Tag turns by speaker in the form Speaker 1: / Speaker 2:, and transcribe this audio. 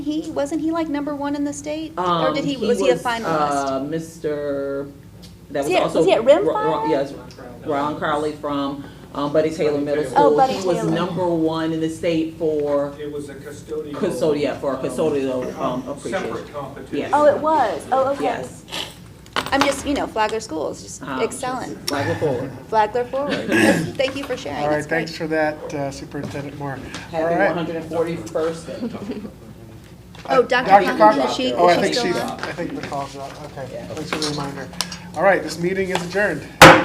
Speaker 1: He, wasn't he like number one in the state? Or
Speaker 2: Um,
Speaker 1: did he, was he a finalist?
Speaker 2: uh, Mr., that
Speaker 1: Was
Speaker 2: was
Speaker 1: he at-
Speaker 2: also.
Speaker 1: was he at
Speaker 2: Ro-
Speaker 1: Rim
Speaker 2: Ro-
Speaker 1: Fire?
Speaker 2: Yes, Ron Crowley from um, Buddy Taylor Middle
Speaker 3: Oh,
Speaker 2: School.
Speaker 1: Buddy
Speaker 2: He was
Speaker 1: Taylor.
Speaker 2: number one in the state for
Speaker 3: It was a custodial.
Speaker 2: custodial, for custodial um,
Speaker 3: um,
Speaker 2: appreciation.
Speaker 3: Separate competition.
Speaker 2: Oh, it
Speaker 1: was, oh,
Speaker 2: Yes.
Speaker 1: I'm just, you know, Flagler Schools, just
Speaker 2: Um,
Speaker 1: excellent.
Speaker 2: Flagler forward.
Speaker 1: Flagler forward. That's- Thank you for sharing,
Speaker 4: All right,
Speaker 1: that's
Speaker 4: thanks
Speaker 1: great.
Speaker 4: for that, uh, Superintendent Moore. All
Speaker 2: Happy
Speaker 4: right.
Speaker 2: 141st day.
Speaker 1: Oh, Dr.
Speaker 4: Dr.
Speaker 1: Conklin,
Speaker 4: Cochran.
Speaker 1: is she,
Speaker 4: Oh, I
Speaker 1: is she
Speaker 4: think
Speaker 1: still
Speaker 4: she's,
Speaker 1: on?
Speaker 4: I think the call's out, okay.
Speaker 2: Yeah.
Speaker 4: Thanks for the reminder. All right, this meeting is adjourned.